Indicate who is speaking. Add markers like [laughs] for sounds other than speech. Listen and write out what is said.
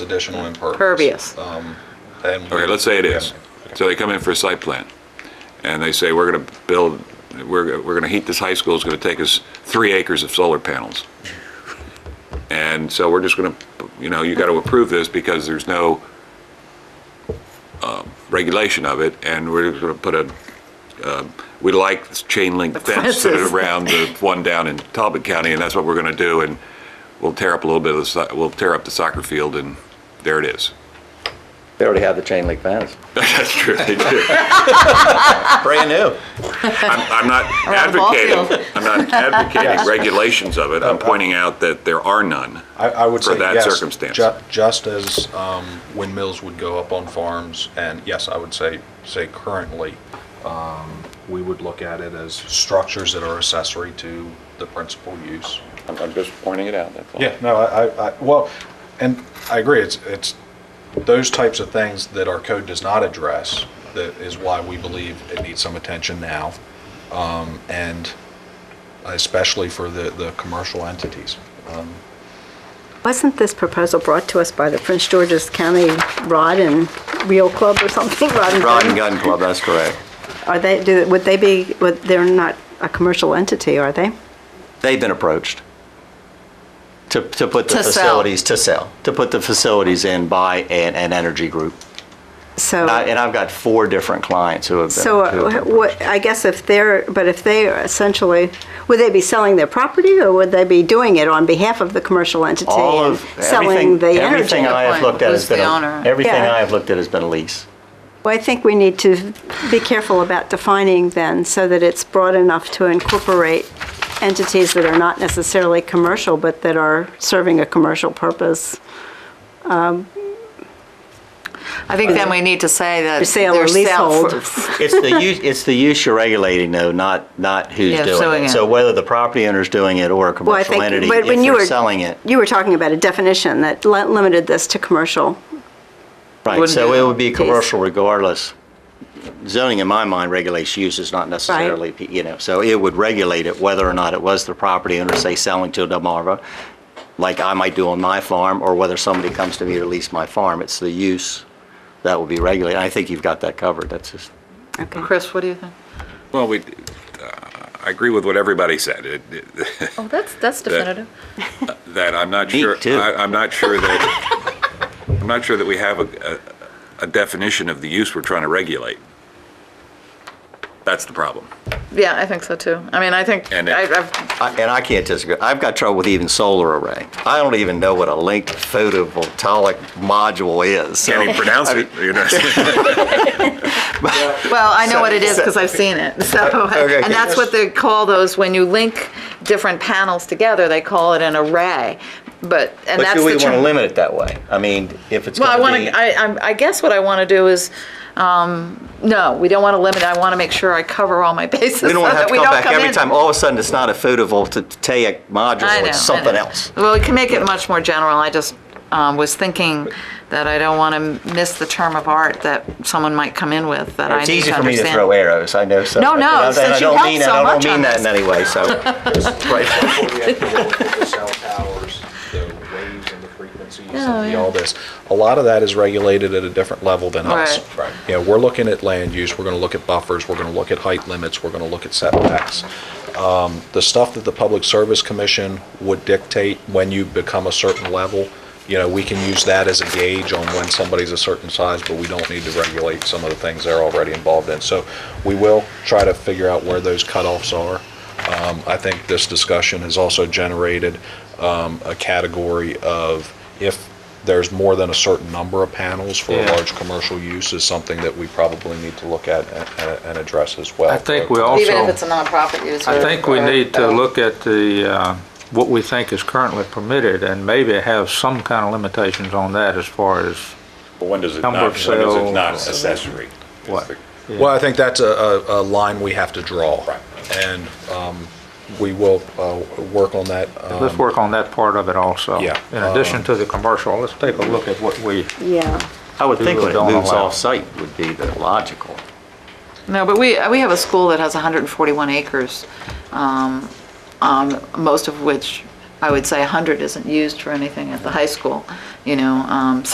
Speaker 1: additional impervious.
Speaker 2: Pervious.
Speaker 1: Um, and we-
Speaker 3: Okay, let's say it is. So they come in for a site plan, and they say, we're going to build, we're, we're going to heat this high school, it's going to take us three acres of solar panels. And so we're just going to, you know, you got to approve this because there's no um, regulation of it, and we're going to put a, um, we like this chain link fence that
Speaker 2: Fences.
Speaker 3: are around the one down in Talbot County, and that's what we're going to do, and we'll tear up a little bit of the, si- we'll tear up the soccer field, and there it is. [laughs]
Speaker 4: They already have the chain link fence.
Speaker 3: That's true, they do.
Speaker 5: Brand new.
Speaker 3: I'm, I'm not
Speaker 2: Around the ball
Speaker 3: advocating, I'm not [laughs] advocating regulations of it. I'm pointing out that there are none.
Speaker 1: I, I would
Speaker 3: for
Speaker 1: say
Speaker 3: that
Speaker 1: yes,
Speaker 3: circumstance.
Speaker 1: ju- Just as um, windmills would go up on farms, and yes, I would say, say currently, um, we would look at it as structures that are accessory to the principal use.
Speaker 3: I'm, I'm just pointing it out, that's all.
Speaker 1: Yeah, no, I, I- I, well, and I agree, it's, it's those types of things that our code does not address, that is why we believe it needs some attention now, um, and especially for the, the commercial entities. Um,
Speaker 2: Wasn't this proposal brought to us by the Prince George's County Rod and Reel Club or something? [laughs] Rod and
Speaker 4: Rod
Speaker 2: Gun?
Speaker 4: and Gun Club, that's correct.
Speaker 2: Are they, do, would they be, would, they're not a commercial entity, are they?
Speaker 4: They've been approached to, to put the
Speaker 6: To sell.
Speaker 4: facilities, to sell, to put the facilities in by an, an energy group.
Speaker 2: So.
Speaker 4: And I- and I've got four different clients who have been.
Speaker 2: Oh. So,
Speaker 4: who have
Speaker 2: uh,
Speaker 4: been
Speaker 2: what, I guess if they're, but if they are essentially, would they be selling their property or would they be doing it on behalf of the commercial entity?
Speaker 4: all
Speaker 2: and
Speaker 4: of
Speaker 2: Selling
Speaker 4: everything,
Speaker 2: the energy?
Speaker 4: everything I have
Speaker 6: Point,
Speaker 4: looked at
Speaker 6: who's
Speaker 4: has been
Speaker 6: the
Speaker 4: a-
Speaker 6: owner?
Speaker 4: everything
Speaker 2: Yeah.
Speaker 4: I have looked at has been a lease.
Speaker 2: Well, I think we need to be careful about defining then so that it's broad enough to incorporate entities that are not necessarily commercial, but that are serving a commercial purpose.
Speaker 6: I think then we need to say that.
Speaker 2: For sale or
Speaker 6: they're sell-
Speaker 2: leasehold.
Speaker 6: for-
Speaker 4: It's the use, it's the use you're regulating though, not, not who's
Speaker 6: Yeah,
Speaker 4: doing
Speaker 6: suing
Speaker 4: it.
Speaker 6: it.
Speaker 4: So whether the property owner's doing it or a
Speaker 2: Well, I
Speaker 4: commercial
Speaker 2: think,
Speaker 4: entity,
Speaker 2: but
Speaker 4: if
Speaker 2: when you
Speaker 4: they're
Speaker 2: were.
Speaker 4: selling it.
Speaker 2: You were talking about a definition that li- limited this to commercial.
Speaker 4: Right,
Speaker 6: Wouldn't
Speaker 4: so
Speaker 6: do
Speaker 4: it
Speaker 6: that.
Speaker 4: would be
Speaker 2: Yes.
Speaker 4: commercial regardless. Zoning, in my mind, regulates uses, not necessarily, you know, so it would regulate it whether or not it was the property owner, say, selling to a Delmarva, like I might do on my farm, or whether somebody comes to me to lease my farm. It's the use that will be regulated. I think you've got that covered. That's just,
Speaker 2: Okay.
Speaker 6: Chris, what do you think?
Speaker 3: Well, we, uh, I agree with what everybody said, It- [laughs] it-
Speaker 6: Oh, that's, that's
Speaker 3: definitive. that I'm not
Speaker 4: Me
Speaker 3: sure.
Speaker 4: too.
Speaker 3: I- I'm not sure that, I'm not sure that we have a, a a definition of the use we're trying to regulate. That's the problem.
Speaker 6: Yeah, I think so too. I mean, I think,
Speaker 3: And it- I-
Speaker 4: I- and I can't disagree. I've got trouble with even solar array. I don't even know what a linked photovoltaic module is. so-
Speaker 3: Can't even pronounce it, you know?
Speaker 6: well, I know what it is because I've seen it, so.
Speaker 4: Uh, Okay.
Speaker 6: And that's what they call those, when you link different panels together, they call it an array, but, and
Speaker 4: But
Speaker 6: that's the.
Speaker 4: do we want to
Speaker 6: term-
Speaker 4: limit it that way? I mean, if it's
Speaker 6: Well, I
Speaker 4: gonna
Speaker 6: want
Speaker 4: be-
Speaker 6: to, I, I'm- I guess what I want to do is, um, no, we don't want to limit, I want to make sure I cover all my [laughs] bases so
Speaker 4: We don't want to have
Speaker 6: that
Speaker 4: to
Speaker 6: we
Speaker 4: come
Speaker 6: don't
Speaker 4: back
Speaker 6: come
Speaker 4: every
Speaker 6: in.
Speaker 4: time, all of a sudden, it's not a photovoltaic
Speaker 6: I
Speaker 4: module,
Speaker 6: know, I
Speaker 4: it's something
Speaker 6: know.
Speaker 4: else.
Speaker 6: Well, we can make it much more general. I just um, was thinking that I don't want to miss the term of art that someone might come in with that I need
Speaker 4: It's
Speaker 6: to
Speaker 4: easy for me to
Speaker 6: understand.
Speaker 4: throw arrows, I know, so.
Speaker 6: No, no,
Speaker 4: and I- and I
Speaker 6: since you
Speaker 4: don't
Speaker 6: helped
Speaker 4: mean
Speaker 6: so
Speaker 4: that-
Speaker 6: much
Speaker 4: I don't
Speaker 6: on
Speaker 4: mean that in
Speaker 6: this.
Speaker 4: any way,
Speaker 6: [laughs]
Speaker 4: so. [laughs] Right.
Speaker 1: before we actually look at the cell towers, the waves and the frequencies
Speaker 6: Oh,
Speaker 1: and the-
Speaker 6: yeah.
Speaker 1: all this. A lot of that is regulated at a different level than us.
Speaker 6: Right.
Speaker 1: Right. You know, we're looking at land use, we're gonna look at buffers, we're gonna look at height limits, we're gonna look at setbacks. Um, The stuff that the Public Service Commission would dictate when you become a certain level, you know, we can use that as a gauge on when somebody's a certain size, but we don't need to regulate some of the things they're already involved in. So we will try to figure out where those cutoffs are. Um, I think this discussion has also generated um, a category of if there's more than a certain number of panels for a
Speaker 7: Yeah.
Speaker 1: large commercial use is something that we probably need to look at and- and and address as well.
Speaker 7: I think we
Speaker 6: Even if it's
Speaker 7: also,
Speaker 6: a nonprofit user.
Speaker 7: I think we
Speaker 6: or-
Speaker 7: need to look at the, uh, what we think is currently permitted and maybe have some kind of limitations on that as far as
Speaker 3: [laughs] But When does it
Speaker 7: Number
Speaker 3: not, when
Speaker 7: of
Speaker 3: does it
Speaker 7: cells.
Speaker 3: not accessory? is
Speaker 7: what.
Speaker 3: the-
Speaker 1: Well, I think that's a, a, a line we have to draw. And um, we will uh, work on that.
Speaker 7: Let's
Speaker 1: um,
Speaker 7: work on that part of it also.
Speaker 1: Yeah. um,
Speaker 7: In addition to the commercial, let's take a look at what we,
Speaker 2: Yeah.
Speaker 4: I would think when it
Speaker 7: People don't
Speaker 4: moves
Speaker 7: allow.
Speaker 4: off-site would be the logical.
Speaker 6: No, but we, we have a school that has 141 acres, um, um, most of which, I would say 100 isn't used for anything at the high school, you know, um,